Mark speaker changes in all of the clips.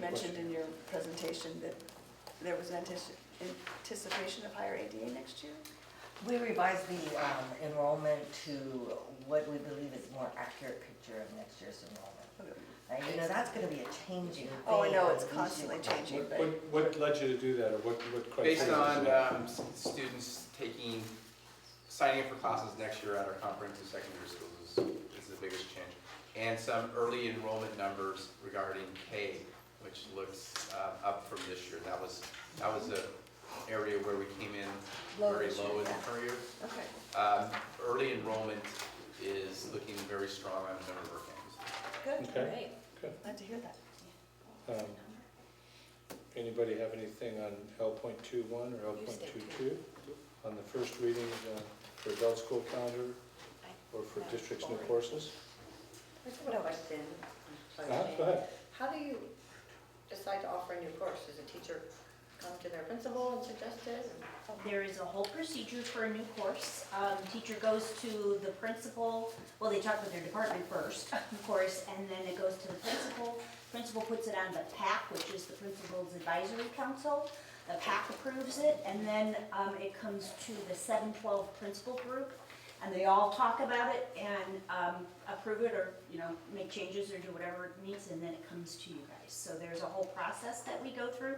Speaker 1: mentioned in your presentation that there was antici- anticipation of higher ADA next year?
Speaker 2: We revised the um, enrollment to what we believe is a more accurate picture of next year's enrollment. Uh, You know, that's gonna be a changing thing.
Speaker 1: Oh, I know, it's
Speaker 2: each year.
Speaker 1: constantly changing,
Speaker 3: What,
Speaker 1: but,
Speaker 3: what- what led you to do that, or what, what criteria?
Speaker 4: Based on
Speaker 3: is that?
Speaker 4: um, s- students taking, signing up for classes next year at our comprehensive secondary schools is, is the biggest change. And some early enrollment numbers regarding K, which looks uh, up from this year. That was, that was the area where we came in
Speaker 1: Low
Speaker 4: very
Speaker 1: this year,
Speaker 4: low in the
Speaker 1: yeah.
Speaker 4: current year.
Speaker 1: okay.
Speaker 4: Um, Early enrollment is looking very strong on a number of our campuses.
Speaker 1: Good,
Speaker 3: Okay,
Speaker 1: glad to hear that.
Speaker 3: um, anybody have anything on L point two one or L point two two? On the first reading uh, for adult school calendar or for districts new courses?
Speaker 5: Question,
Speaker 3: Uh, Go ahead.
Speaker 5: how do you decide to offer a new course? Does a teacher come to their principal and suggest it?
Speaker 6: There is a whole procedure for a new course. Um, Teacher goes to the principal, well, they talk with their department first, of course, and then it goes to the principal. Principal puts it on the PAC, which is the Principal's Advisory Council. The PAC approves it, and then um, it comes to the 712 principal group, and they all talk about it and um, approve it, or, you know, make changes or do whatever it needs, and then it comes to you guys. So there's a whole process that we go through.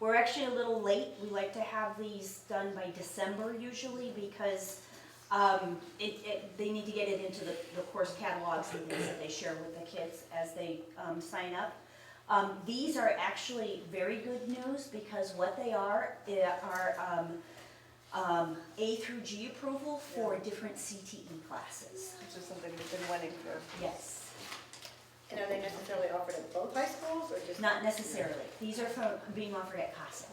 Speaker 6: We're actually a little late. We like to have these done by December usually because um, it, it, they need to get it into the, the course catalogs and things that they share with the kids as they um, sign up. Um, these are actually very good news because what they are, they are um, um, A through G approval for different CTE classes.
Speaker 1: Which is something we've been wanting for,
Speaker 6: Yes,
Speaker 5: And are they necessarily offered at both high schools or just?
Speaker 6: not necessarily. These are from being offered at CASA.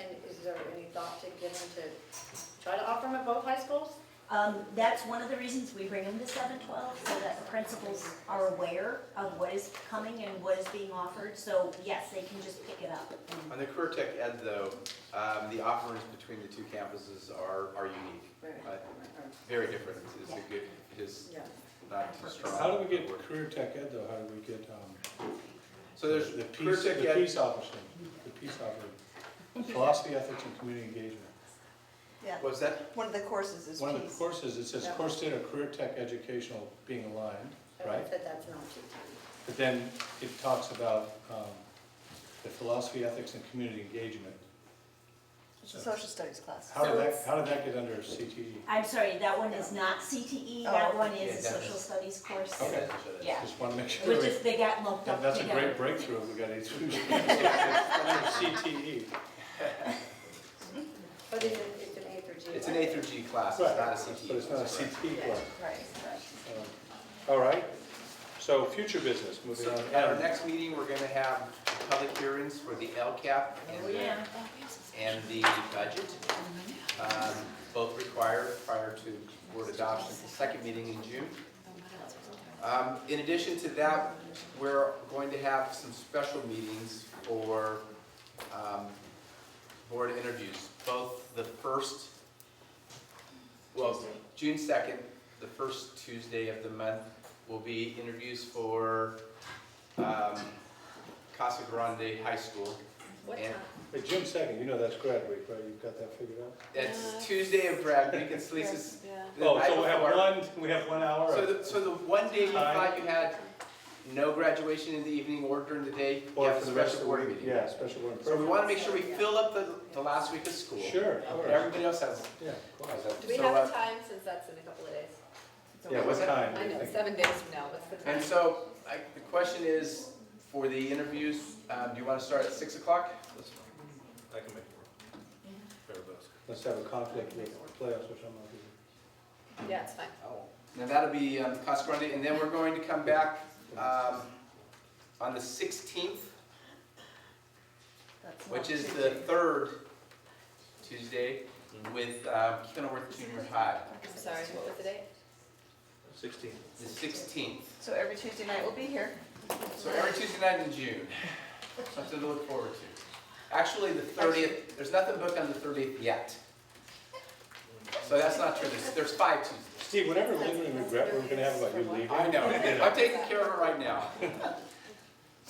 Speaker 5: And is there any thought to get them to try to offer them at both high schools?
Speaker 6: Um, that's one of the reasons we bring them to seven twelve, so that the principals are aware of what is coming and what is being offered, so yes, they can just pick it up. and-
Speaker 4: On the career tech ed though, um, the offerings between the two campuses are, are unique.
Speaker 1: Right.
Speaker 4: Uh, Very different. It's a good, it's
Speaker 5: Yeah.
Speaker 4: not too strong.
Speaker 3: How do we get career tech ed though? How do we get, um,
Speaker 4: So there's
Speaker 3: the
Speaker 4: career
Speaker 3: peace,
Speaker 4: tech
Speaker 3: the
Speaker 4: ed,
Speaker 3: peace officer, the peace officer, philosophy, ethics, and community engagement?
Speaker 1: yeah.
Speaker 4: what's that?
Speaker 1: One of the courses is
Speaker 3: One of the
Speaker 1: peace.
Speaker 3: courses, it says
Speaker 5: Yeah.
Speaker 3: course data, career tech educational being aligned,
Speaker 5: Everyone
Speaker 3: right?
Speaker 5: said that's not TTE.
Speaker 3: But then it talks about um, the philosophy, ethics, and community engagement.
Speaker 1: It's a social studies class.
Speaker 3: How
Speaker 6: So
Speaker 3: did that,
Speaker 6: it's-
Speaker 3: how did that get under E? CTE?
Speaker 6: I'm sorry, that one is not CTE,
Speaker 1: Oh,
Speaker 6: that one
Speaker 4: yeah,
Speaker 6: is a
Speaker 4: that
Speaker 6: social
Speaker 4: is-
Speaker 6: studies course,
Speaker 3: Okay.
Speaker 6: Yeah.
Speaker 3: Just want to make sure.
Speaker 6: which
Speaker 3: we-
Speaker 6: is, they got lumped
Speaker 3: that-
Speaker 6: up
Speaker 3: That's a
Speaker 6: together.
Speaker 3: great breakthrough, if we got A through G. Under CTE.
Speaker 5: But is it, it's an A through G?
Speaker 4: It's an A through G class, it's
Speaker 3: Right.
Speaker 4: not a E. CTE.
Speaker 3: But it's not a
Speaker 4: class, right.
Speaker 3: CTE
Speaker 5: Yeah.
Speaker 3: class.
Speaker 1: Right, right.
Speaker 6: E.
Speaker 3: Um, All right, so future business, moving
Speaker 4: So
Speaker 3: on.
Speaker 4: at our next meeting, we're gonna have public hearings for the LCAP and the,
Speaker 6: Oh, Yeah,
Speaker 4: and the budget. Um, Both required prior to board adoption, at the second meeting in June. Um, In addition to that, we're going to have some special meetings for um, board interviews, both the first, well, June 2nd, the first Tuesday of the month, will be interviews for um, Casa Grande High School.
Speaker 5: What
Speaker 4: And
Speaker 5: time?
Speaker 3: Hey, June second, you know that's grad week, right? You've got that figured out?
Speaker 4: That's Tuesday of grad week, it's Lisa's. the
Speaker 3: Oh,
Speaker 4: night
Speaker 3: so we have
Speaker 4: before.
Speaker 3: one, we have one hour
Speaker 4: So
Speaker 3: of
Speaker 4: the, so the one day you
Speaker 3: Time.
Speaker 4: thought you had no graduation in the evening or during the day, you have for the rest of the board
Speaker 3: week,
Speaker 4: meeting.
Speaker 3: Yeah, special board.
Speaker 4: So we wanna make sure we fill up the, the last week of school.
Speaker 3: Sure, of course.
Speaker 4: Everybody else has.
Speaker 3: Yeah, of course.
Speaker 4: has that.
Speaker 7: Do we
Speaker 4: So,
Speaker 7: have
Speaker 4: uh,
Speaker 7: a time, since that's in a couple of days?
Speaker 3: Yeah, what time?
Speaker 7: I know,
Speaker 3: Like,
Speaker 7: seven days from now, what's the time?
Speaker 4: And so, I, the question is, for the interviews, um, do you wanna start at six o'clock?
Speaker 3: I can make it work. Let's have a conflict with playoffs or something like that.
Speaker 7: Yeah, it's fine.
Speaker 4: Now that'll be, um, Casa Grande, and then we're going to come back, um, on the sixteenth,
Speaker 1: That's
Speaker 4: which
Speaker 1: not
Speaker 4: is
Speaker 1: too
Speaker 4: the
Speaker 1: big.
Speaker 4: third Tuesday with, um, Kenilworth Junior High,
Speaker 7: I'm sorry, what was the date?
Speaker 3: Sixteen.
Speaker 4: the sixteenth.
Speaker 1: So every Tuesday night we'll be here.
Speaker 4: So every Tuesday night in June, something to look forward to. Actually, the thirtieth, there's nothing booked on the thirtieth yet. So that's not true, there's, there's five Tuesdays.
Speaker 3: Steve, whatever lingering regret we're gonna have about you leaving.
Speaker 4: I know, I'm taking care of it right now.